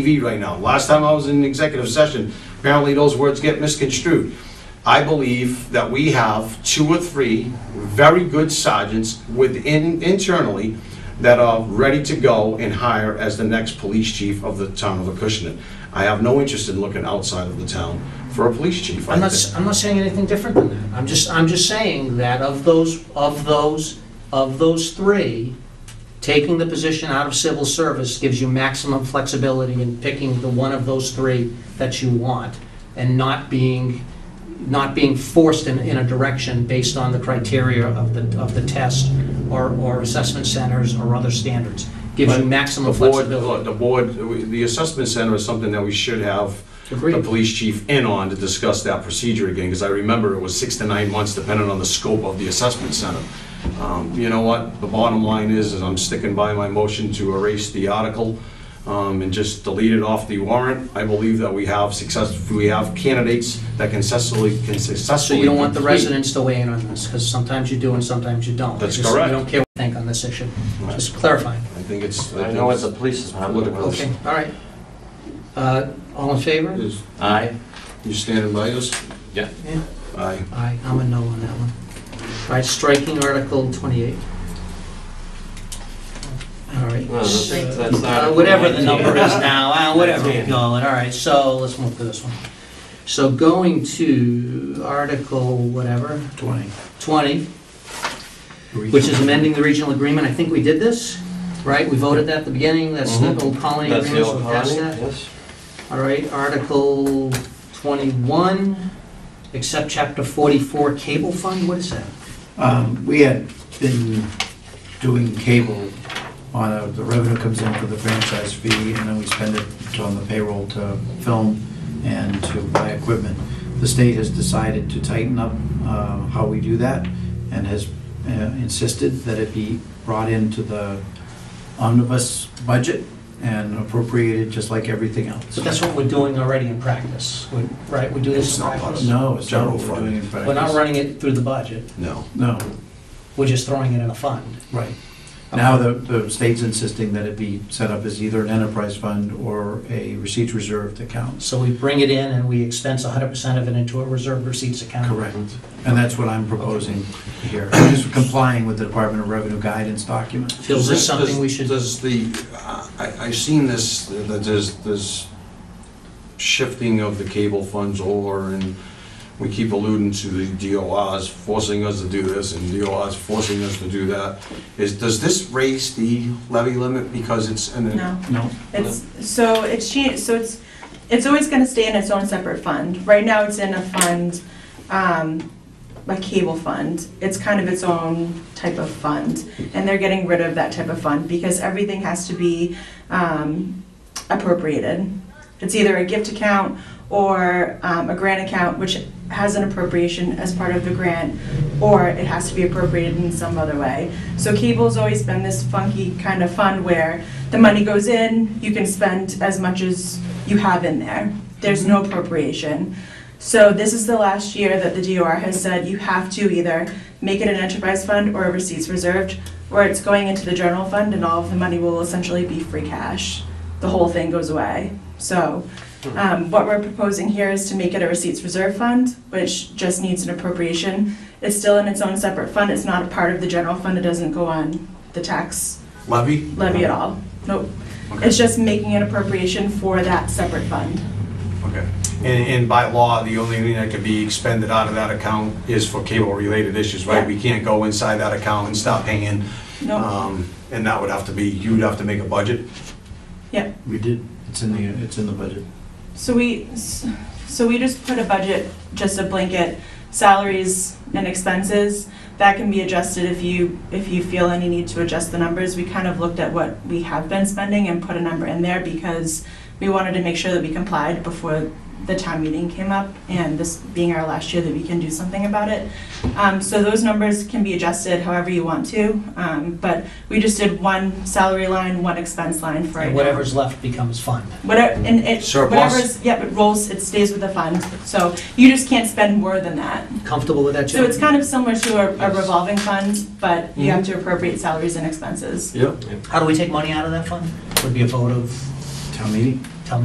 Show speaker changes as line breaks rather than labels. TV right now. Last time I was in executive session, apparently those words get misconstrued. I believe that we have two or three very good sergeants within, internally, that are ready to go and hire as the next police chief of the town of Acushnet. I have no interest in looking outside of the town for a police chief. I
I'm not,
think-
s- I'm not saying anything different than that. I'm just, I'm just saying that of those, of those, of those three, taking the position out of civil service gives you maximum flexibility in picking the one of those three that you want and not being, not being forced in, in a direction based on the criteria of the, of the test or, or assessment centers or other standards. Gives you
But
maximum
The board,
flexibility.
look, the board, we- the assessment center is something that we should have the
Agreed.
police chief in on to discuss that procedure again, because I remember it was six to nine months depending on the scope of the assessment center. Um, You know what, the bottom line is, is I'm sticking by my motion to erase the article um, and just delete it off the warrant. I believe that we have success, we have candidates that can successfully, can
So
successfully.
you don't want the
complete-
residents to weigh in on this, because sometimes you do and sometimes you don't.
That's
Just-
correct.
You don't care what you think on this issue.
Right.
Just clarifying.
I think it's.
I
think
know what
it's-
the police department
Political.
will.
Okay, all right. Uh, All in favor?
is-
Aye.
You standing by us?
Yeah.
Aye.
Aye, I'm a no on that one. All right, striking Article 28. All right.
Well, that's-
so-
that's
Uh,
Article
Whatever the
19.
number is now, uh, whatever we
Nineteen.
call it, all right, so let's move to this one. So going to Article whatever,
20.
20, which is amending the regional agreement, I think we did this, right? We voted that at the beginning, that's the
Mhm.
old colony
That's the
agreement, so
old
we passed
colony,
that.
yes.
All right, Article 21, accept Chapter 44 Cable Fund, what is that?
Um, We had been doing cable on, a- the revenue comes in for the franchise fee, and then we spend it on the payroll to film and to buy equipment. The state has decided to tighten up uh, how we do that and has uh, insisted that it be brought into the omnibus budget and appropriated just like everything else.
So that's what we're doing already in practice, we- right? We do this in practice.
No, it's not
General
what we're
fund.
doing in practice.
We're not running it through the budget,
No.
No,
we're just throwing it in a fund.
right. Now, the, the state's insisting that it be set up as either an enterprise fund or a receipts reserved account.
So we bring it in and we expense 100% of it into a reserve receipts account.
Correct. And that's what I'm proposing here, just complying with the Department of Revenue guidance document.
Feels this
Does-
something
does-
we should,
Does the, I, I've seen this, that there's, there's shifting of the cable funds over, and we keep alluding to the DORs forcing us to do this, and DORs forcing us to do that. Is, does this raise the levy limit because it's, an
No,
No,
it's, so it's changed, so it's, it's always gonna stay in its own separate fund. Right now, it's in a fund, um, a cable fund. It's kind of its own type of fund, and they're getting rid of that type of fund because everything has to be, um, appropriated. It's either a gift account or, um, a grant account, which has an appropriation as part of the grant, or it has to be appropriated in some other way. So cable's always been this funky kind of fund where the money goes in, you can spend as much as you have in there. There's no appropriation. So this is the last year that the DOR has said you have to either make it an enterprise fund or a receipts reserved, or it's going into the general fund and all of the money will essentially be free cash. The whole thing goes away. So um, what we're proposing here is to make it a receipts reserve fund, which just needs an appropriation. It's still in its own separate fund. It's not a part of the general fund. It doesn't go on the tax
levy?
levy at all. Nope.
Okay.
It's just making an appropriation for that separate fund.
Okay. And, and by law, the only thing that can be expended out of that account is for cable-related issues, right?
Yeah.
We can't go inside that account and stop paying,
Nope.
um, and that would have to be, you'd have to make a budget?
we did, it's in the, it's in the budget.
So we, so we just put a budget, just a blanket, salaries and expenses. That can be adjusted if you, if you feel any need to adjust the numbers. We kind of looked at what we have been spending and put a number in there because we wanted to make sure that we complied before the town meeting came up and this being our last year that we can do something about it. Um, so those numbers can be adjusted however you want to, um, but we just did one salary line, one expense line for right
and
now.
whatever's left becomes fund.
Whatever, and it,
Surplus.
whatever's, yep, it rolls, it stays with the fund, so you just can't spend more than that.
Comfortable with that, Jim?
So it's kind of similar to a- a
Yes.
revolving fund, but you have to appropriate salaries and expenses.
Yep.
How do we take money out of that fund? Would be a vote of,
Town meeting?